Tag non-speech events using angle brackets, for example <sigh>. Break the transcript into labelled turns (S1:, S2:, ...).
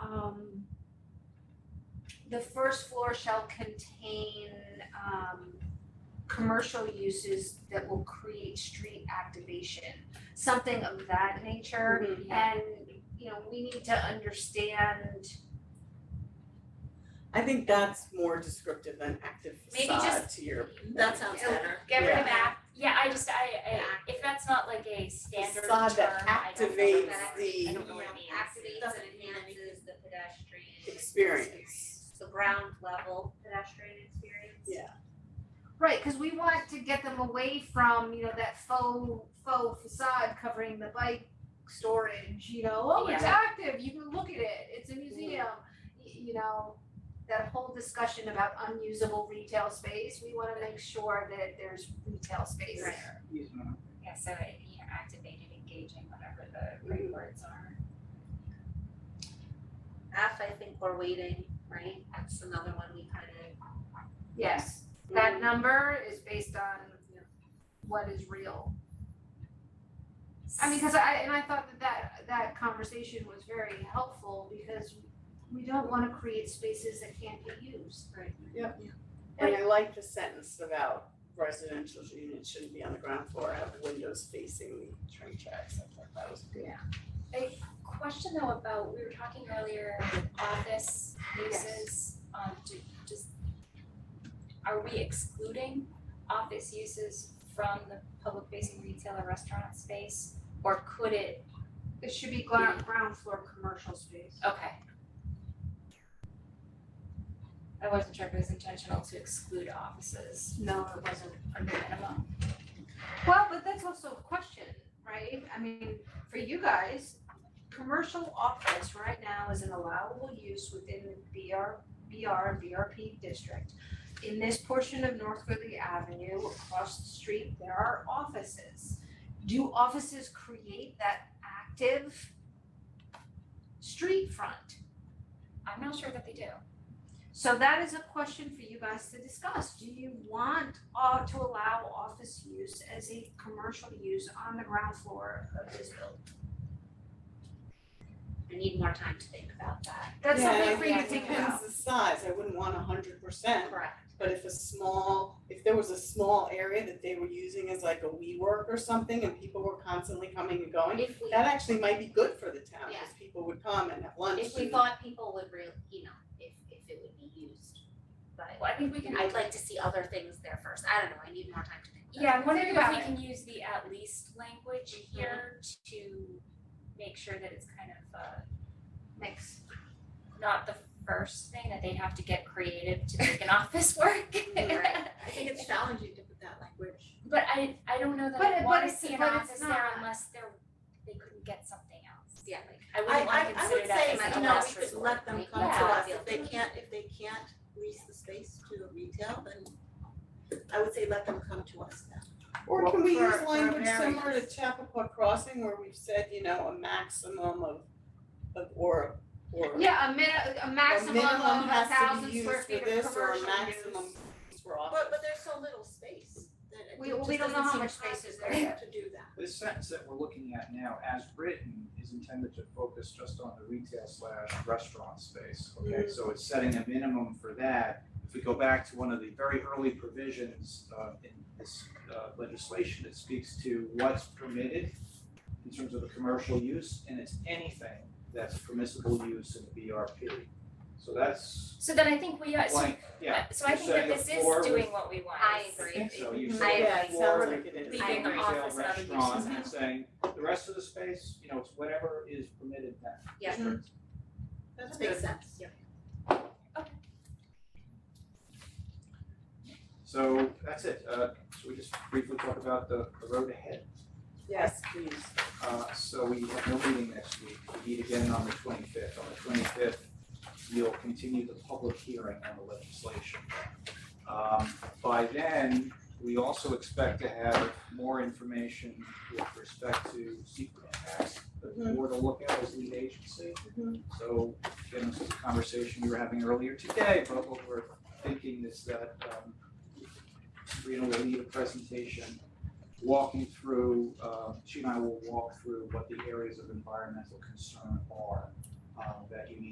S1: um, the first floor shall contain um commercial uses that will create street activation, something of that nature.
S2: Mm-hmm.
S1: And, you know, we need to understand,
S3: I think that's more descriptive than active
S2: Maybe
S3: facade to your.
S4: That sounds
S1: It'll-
S4: better.
S2: Get rid of
S3: Yeah.
S2: act, yeah, I just, I, I,
S1: Yeah.
S2: if that's not like a standard term, I
S3: Facade
S2: don't know
S3: that
S2: what it
S3: activates
S2: means. I
S3: the-
S2: don't know what it means.
S4: Activates
S3: Doesn't
S4: and
S3: mean
S4: enhances the pedestrian
S3: Experience.
S4: The ground level pedestrian experience.
S3: Yeah.
S1: right, cause we want to get them away from, you know, that faux faux facade covering the bike storage, you know, oh, it's
S2: Yeah.
S1: active, you can look at it, it's a museum. Y- You know, that whole discussion about unusable retail space, we wanna make sure that there's retail space
S4: Right.
S1: there.
S5: uh,
S2: Yeah, so it, you know, activated, engaging, whatever the
S3: Mm-hmm.
S2: right words are.
S4: F, I think we're waiting, right? That's another one we kind of.
S1: Yes, that number is based on what is real. I mean, cause I, and I thought that that, that conversation was very helpful because we don't wanna create spaces that can't be used.
S3: And I like the sentence about residential units shouldn't be on the ground floor, have windows facing the train tracks, I thought that was good.
S2: Question though about, we were talking earlier with office uses, um, do, just, are we excluding office uses from the public facing retail or restaurant space? Or could it,
S1: It should be ground, ground floor commercial space.
S2: okay. I wasn't sure if it was intentional to exclude offices
S1: No, it wasn't.
S2: under minimum.
S1: Well, but that's also a question, right? I mean, for you guys, commercial office right now is an allowable use within the BR, BR and BRP district. In this portion of North Ridley Avenue, across the street, there are offices. Do offices create that active street front?
S2: I'm not sure that they do.
S1: So that is a question for you guys to discuss. Do you want uh to allow office use as a commercial use on the ground floor of this building?
S4: I need more time to think about that.
S1: That's
S3: Yeah,
S1: something for you
S3: I
S1: to
S3: think
S1: think
S3: it depends
S1: about.
S3: the size, I wouldn't want a hundred percent,
S4: Correct.
S3: but if a small, if there was a small area that they were using as like a WeWork or something and people were constantly coming and going,
S4: If we,
S3: that actually might be good for the town,
S4: Yeah.
S3: cause people would come and have lunch
S4: if we
S3: and-
S4: thought people would real, you know, if, if it would be used. But
S2: Well, I think we can.
S4: I'd like to see other things there first. I don't know, I need more time to think about it.
S2: Yeah, I'm wondering
S1: Think
S2: if we
S1: about
S2: can use the at least language here to make sure that it's kind of uh
S1: Mix.
S2: not the first thing that they have to get creative to make an <laughs> office work. <laughs>
S4: Right. I think it's challenging to put that language.
S2: But I I don't know that
S1: But-
S2: I
S1: but
S2: wanna
S1: it's-
S2: see an
S1: but it's
S2: office there
S1: not.
S2: unless they're they couldn't get something else.
S4: Yeah.
S2: Like I wouldn't wanna consider that as
S4: like,
S2: a
S4: you know,
S2: last
S4: we could
S2: resort.
S6: let them
S4: Make
S6: come to
S2: that
S6: us,
S4: feel
S6: if they
S4: free.
S6: can't, if they can't lease the space to a retail, then I would say let them come to us then.
S3: Or can we
S4: for-
S3: use
S4: for
S3: language similar to
S4: variance.
S3: Chappaqua Crossing where we've said, you know, a maximum of of or or
S1: Yeah, a min- a
S3: a
S1: maximum of
S3: minimum
S1: a
S3: has to
S1: thousand
S3: be used
S1: square
S3: for
S1: feet of
S3: this or a
S1: commercial use.
S3: maximum for office.
S6: But but there's so little space that it
S1: We-
S6: just
S1: we don't know how
S6: doesn't
S1: much
S6: seem
S1: space is
S6: practical
S1: there.
S6: To do that.
S5: The sentence that we're looking at now, as written, is intended to focus just on the retail slash restaurant space, okay? So it's setting a minimum for that. If we go back to one of the very early provisions uh in this uh legislation, it speaks to what's permitted in terms of the commercial use, and it's anything that's permissible use in the BRP. So that's
S2: So then I think we uh so
S5: blank, yeah,
S2: so I
S5: You're
S2: think that
S5: saying the
S2: this is
S5: floor
S2: doing what we want.
S4: I
S2: It's
S5: I
S4: agree.
S5: think so, you
S3: Mhm.
S5: said
S4: I
S3: Yeah,
S4: agree.
S3: it sounds like it is.
S2: Leaving
S4: I
S5: big
S2: the
S4: agree.
S5: retail
S2: office and other
S5: restaurant
S2: uses
S5: and
S2: out.
S5: saying, the rest of the space, you know, it's whatever is permitted in that
S4: Yeah.
S5: district.
S6: That makes sense.
S5: So that's it, uh, should we just briefly talk about the, the road ahead?
S3: Yes, please.
S5: Uh, so we have no meeting next week, we meet again on the twenty-fifth, on the twenty-fifth, you'll continue the public hearing on the legislation. Um, by then, we also expect to have more information with respect to secret acts, the
S3: Mhm.
S5: board will look at as lead agency.
S3: Mhm.
S5: So, again, this is a conversation we were having earlier today, but what we're thinking is that, um, Sabrina will need a presentation walking through, uh, she and I will walk through what the areas of environmental concern are, um, that you need